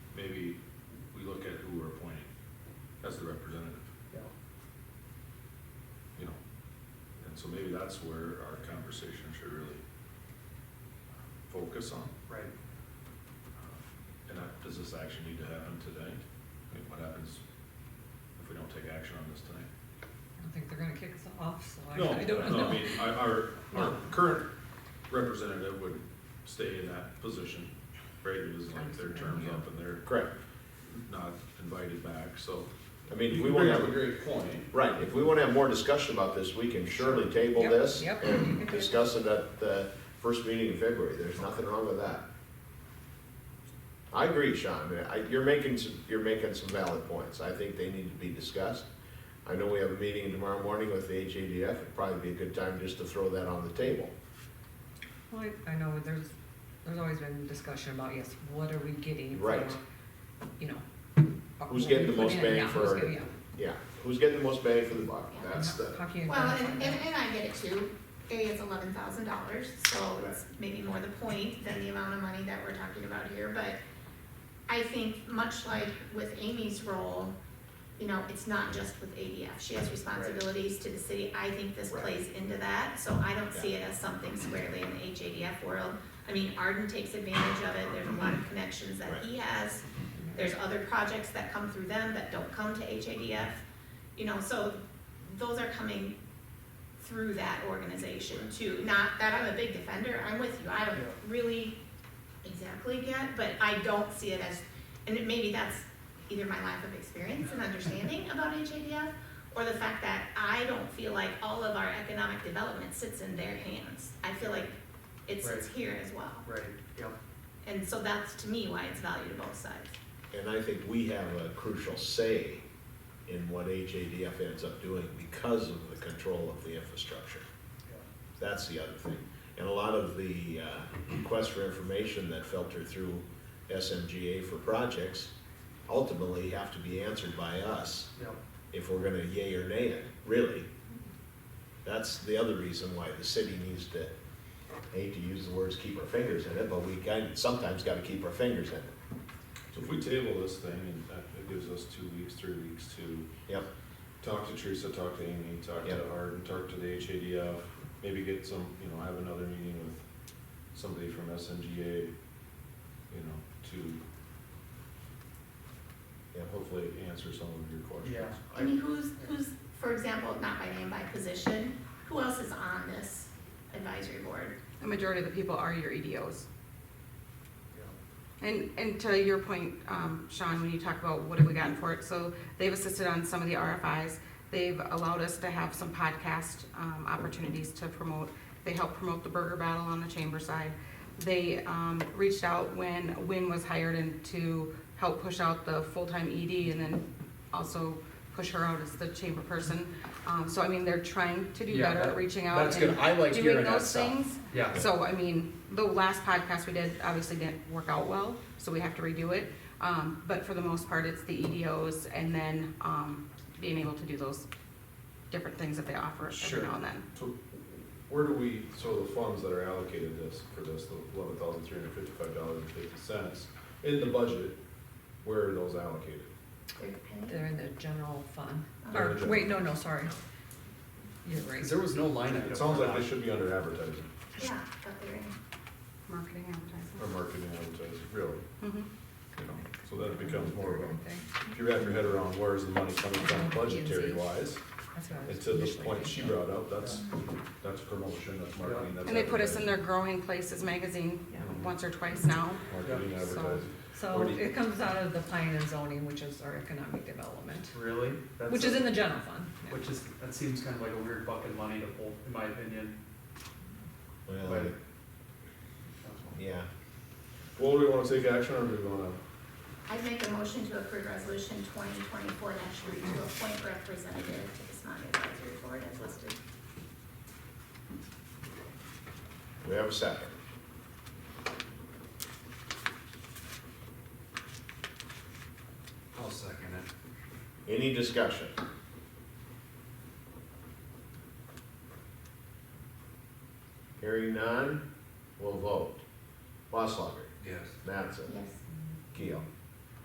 So maybe that's where our conversation should really uh, focus on. Uh, Right. And I- does this action need to happen today? I mean, what happens if we don't take action on this tonight? I don't think they're gonna kick us off, so No, I, I don't no, I know. mean, our- our, our No. current representative would stay in that position, right, it was like their term's up and they're Correct. not invited back, so. I mean, You if we bring want to up a have, great point. right, if we want to have more discussion about this, we can surely table Yep, this yep. and discuss it at the first meeting in February. There's nothing wrong with that. I agree, Sean. I- You're making some, you're making some valid points. I think they need to be discussed. I know we have a meeting tomorrow morning with the HADF. It'd probably be a good time just to throw that on the table. Well, I- I know, there's, there's always been discussion about, yes, what are we getting for, Right. you know. uh, Who's what getting we the put most in, bang yeah, for who's our- getting- yeah, Yeah, who's getting the most bang for the buck? yeah, That's the, How can you Well, identify and, and, that? and I get it too, A is eleven thousand dollars, so it's maybe more the point than the amount of money that we're talking about here, but I think much like with Amy's role, you know, it's not just with ADF, she has responsibilities to the city, I think this Right. plays into that, so I don't see it as something squarely in the HADF world. I mean, Arden takes advantage of it, there's a lot of connections that he has, there's other projects that come through them that don't come to HADF, you know, so those are coming through that organization too. Not that I'm a big defender, I'm with you, I don't Yeah. really exactly get, but I don't see it as, and it- maybe that's either my lack of experience and understanding about HADF, or the fact that I don't feel like all of our economic development sits in their hands. I feel like it sits Right. here as well, Right, yep. and so that's to me why it's valued to both sides. And I think we have a crucial say in what HADF ends up doing because of the control of the infrastructure. That's the other thing. And a lot of the uh, requests for information that filter through SMGA for projects ultimately have to be answered by us Yep, if we're gonna yay or nay it, really. That's the other reason why the city needs to, I hate to use the words, keep our fingers in it, but we kind of sometimes gotta keep our fingers in it. So if we table this thing and that it gives us two weeks, three weeks to Yep, talk to Teresa, talk to Amy, talk to Yeah. Arden, talk to the HADF, maybe get some, you know, have another meeting with somebody from SNGA, you know, to yep. hopefully answer some of your questions. yeah. I mean, who's, who's, for example, not by name, by position, who else is on this advisory board? The majority of the people are your EDOs. Yeah. And, and to your point, um, Sean, when you talk about what have we gotten for it, so they've assisted on some of the RFIs. They've allowed us to have some podcast, um, opportunities to promote. They helped promote the burger battle on the chamber side. They, um, reached out when Win was hired and to help push out the full-time ED and then also push her out as the chamber person. Um, so I mean, they're trying to do Yeah, better, that- reaching out That's good. and I like doing hearing that those stuff. things. Yeah. So, I mean, the last podcast we did obviously didn't work out well, so we have to redo it. Um, but for the most part, it's the EDOs and then, um, being able to do those different things that they offer Sure. every now and then. So where do we, so the funds that are allocated this, for this, the eleven thousand three hundred fifty-five dollars and fifty cents, in the budget, where are those allocated? They're in the general fund, They're in or, the general. wait, no, no, sorry. You're right. Because there was no line item. It sounds for like they that. should be under advertising, Yeah, but they're in. Marketing or advertising. marketing advertising, really, Mhm. you know, so that it becomes more of a Thing. if you wrap your head around where's the money coming from budgetary wise, That's what I was and to the initially point she thinking. brought up, that's, that's promotion, that's marketing, that's. And they put us in advertising, their Growing Places magazine Yeah. once or twice now. Marketing, Yeah. advertising. So Where do you- it comes out of the planning and zoning, which is our economic development, Really? That's which a- is in the general fund. yeah. Which is, that seems kind of like a weird bucket of money to hold, in my opinion. Well, Right. yeah, Well, do we wanna take action or do we wanna, I'd make a motion to approve resolution twenty twenty-four three to appoint representative to the Smog Advisory Board as listed. we have a second. I'll second it. Any discussion? Hearing none, we'll vote. Boslaw. Yes. Mattson. Yes. Keel.